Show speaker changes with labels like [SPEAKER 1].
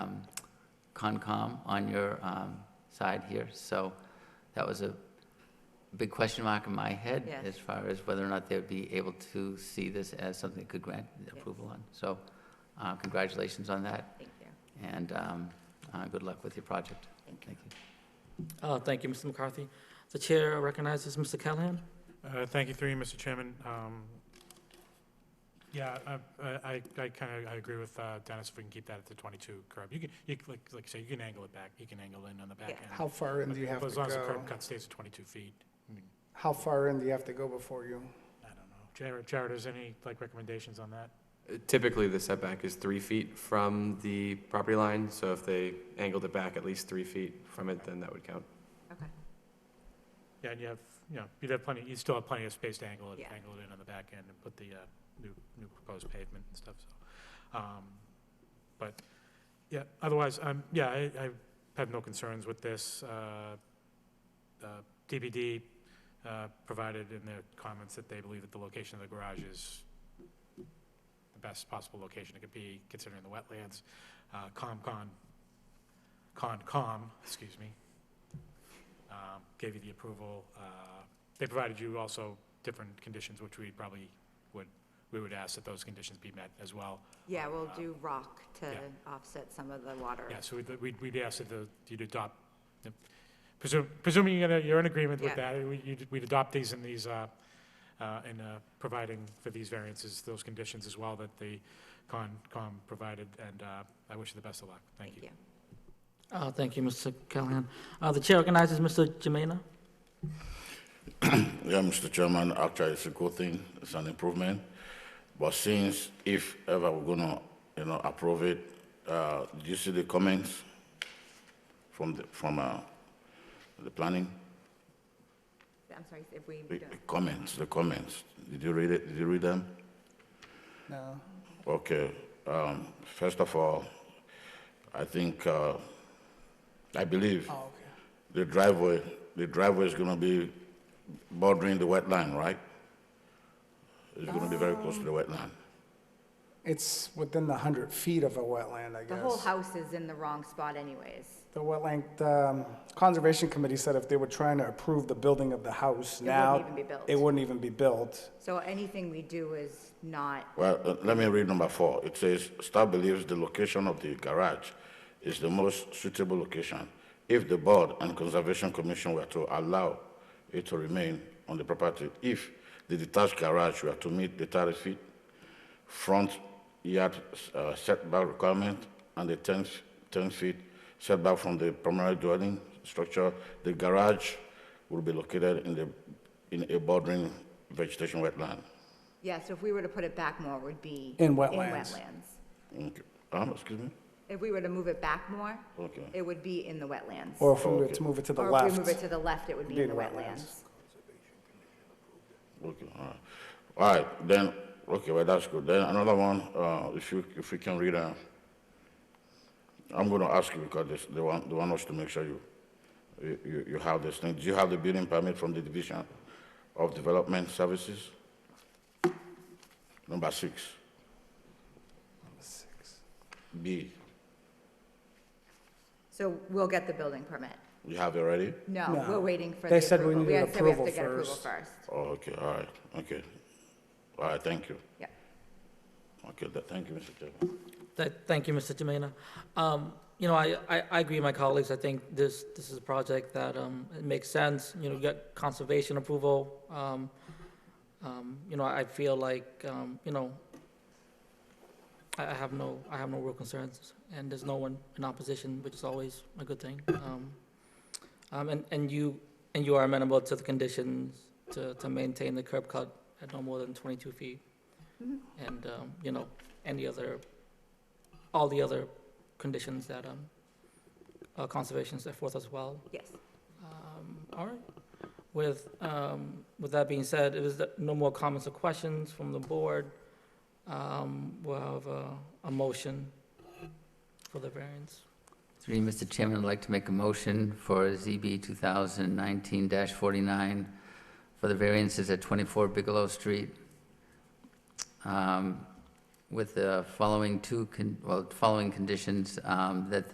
[SPEAKER 1] um, Concom on your um, side here, so that was a big question mark in my head
[SPEAKER 2] Yes.
[SPEAKER 1] as far as whether or not they'd be able to see this as something they could grant approval on. So uh, congratulations on that,
[SPEAKER 2] Thank you.
[SPEAKER 1] and um, uh, good luck with your project.
[SPEAKER 2] Thank
[SPEAKER 1] Thank you.
[SPEAKER 3] Uh, Thank you, Mr. McCarthy. The chair recognizes Mr. Callahan.
[SPEAKER 4] Uh, Thank you, through you, Mr. Chairman. Um, Yeah, I- I, I kind of, I agree with uh, Dennis, if we can keep that at the 22 curb. You can, you can- like, like you say, you can angle it back, you can angle in on the back
[SPEAKER 2] Yeah.
[SPEAKER 4] end.
[SPEAKER 5] How far in do you have
[SPEAKER 4] But
[SPEAKER 5] to
[SPEAKER 4] As long as the
[SPEAKER 5] go?
[SPEAKER 4] curb cut stays at 22 feet. I mean,
[SPEAKER 5] How far in do you have to go before you?
[SPEAKER 4] I don't know. Jared, Jared, is any, like, recommendations on that?
[SPEAKER 6] Typically, the setback is three feet from the property line, so if they angled it back at least three feet from it, then that would count.
[SPEAKER 2] Okay.
[SPEAKER 4] Yeah, and you have, you know, you'd have plenty, you'd still have plenty of space to angle it,
[SPEAKER 2] Yeah.
[SPEAKER 4] angle it in on the back end and put the, uh, new, new proposed pavement and stuff, so. um, But, yeah, otherwise, um, yeah, I, I have no concerns with this. Uh, uh, DPD, uh, provided in their comments that they believe that the location of the garage is the best possible location it could be, considering the wetlands. Uh, COMCON, CONCOM, excuse me, um, gave you the approval. Uh, They provided you also different conditions, which we probably would, we would ask that those conditions be met as well.
[SPEAKER 2] Yeah, we'll do rock to
[SPEAKER 4] Yeah.
[SPEAKER 2] offset some of the water.
[SPEAKER 4] Yeah, so we'd- we'd, we'd ask that the- you'd adopt, presum- presuming you're gonna- you're in agreement with
[SPEAKER 2] Yeah.
[SPEAKER 4] that, we- you'd- we'd adopt these in these, uh, uh, in uh, providing for these variances, those conditions as well that the con, con provided, and uh, I wish you the best of luck. Thank you.
[SPEAKER 3] Uh, Thank you, Mr. Callahan. Uh, The chair recognizes Mr. Jimena.
[SPEAKER 7] Yeah, Mr. Chairman, actually, it's a good thing, it's an improvement. But since if ever we're gonna, you know, approve it, uh, did you see the comments from the, from, uh, the planning?
[SPEAKER 2] I'm sorry, if we
[SPEAKER 7] The
[SPEAKER 2] don't.
[SPEAKER 7] the comments, the comments, did you read it, did you read them?
[SPEAKER 5] No.
[SPEAKER 7] Okay, um, first of all, I think, uh, I believe
[SPEAKER 5] Oh, okay.
[SPEAKER 7] the driveway, the driveway is gonna be bordering the wetland, right? It's gonna be very close to the wetland.
[SPEAKER 5] It's within the 100 feet of a wetland, I guess.
[SPEAKER 2] The whole house is in the wrong spot anyways.
[SPEAKER 5] The wetland, the um, Conservation Committee said if they were trying to approve the building of the house
[SPEAKER 2] wouldn't
[SPEAKER 5] now.
[SPEAKER 2] even be built.
[SPEAKER 5] It wouldn't even be built.
[SPEAKER 2] So anything we do is not,
[SPEAKER 7] Well, uh, let me read number four. It says, "Staff believes the location of the garage is the most suitable location if the board and conservation commission were to allow it to remain on the property. If the detached garage were to meet the 30 feet front yard uh, setback requirement and the 10, f- 10 feet setback from the primary dwelling structure, the garage will be located in the, in a bordering vegetation wetland."
[SPEAKER 2] yeah, so if we were to put it back more, it would be.
[SPEAKER 5] In wetlands.
[SPEAKER 2] wetlands.
[SPEAKER 7] Okay. Um, excuse me?
[SPEAKER 2] If we were to move it back more,
[SPEAKER 7] Okay.
[SPEAKER 2] it would be in the wetlands.
[SPEAKER 5] Or if we were to move it to the
[SPEAKER 2] Or
[SPEAKER 5] left.
[SPEAKER 2] if we move it to the left, it would be in the wetlands.
[SPEAKER 7] Okay, all right. All right, then, okay, well, that's good. Then another one, uh, if you, if you can read, uh, I'm gonna ask you because this, they want, they want us to make sure you, you- you, you have this thing. Do you have the building permit from the Division of Development Services? Number six, B,
[SPEAKER 2] So we'll get the building permit.
[SPEAKER 7] you have it ready?
[SPEAKER 2] No,
[SPEAKER 5] No.
[SPEAKER 2] we're waiting for the approval.
[SPEAKER 5] They said we needed
[SPEAKER 2] had- said we have to
[SPEAKER 5] approval
[SPEAKER 2] get approval
[SPEAKER 5] first.
[SPEAKER 2] first.
[SPEAKER 7] Oh, okay, all right, okay. All right, thank you.
[SPEAKER 2] Yeah.
[SPEAKER 7] Okay, th- thank you, Mr. Chairman.
[SPEAKER 3] Th- Thank you, Mr. Jimena. Um, You know, I, I I agree with my colleagues. I think this, this is a project that um, it makes sense. You know, you got conservation approval. Um, um, You know, I feel like, um, you know, I I have no, I have no real concerns, and there's no one in opposition, which is always a good thing. Um, um, And, and you, and you are amenable to the conditions to, to maintain the curb cut at no more than 22 feet. And, um, you know, any other all the other conditions that um, uh, conservation set forth as well.
[SPEAKER 2] Yes.
[SPEAKER 3] Um, All right. With, um, with that being said, if there's no more comments or questions from the board, um, we'll have a, a motion for the variance.
[SPEAKER 1] Three, Mr. Chairman, I'd like to make a motion for ZB 2019-49 for the variances at 24 Bigelow Street, um, with the following two, con- well, following conditions, um, that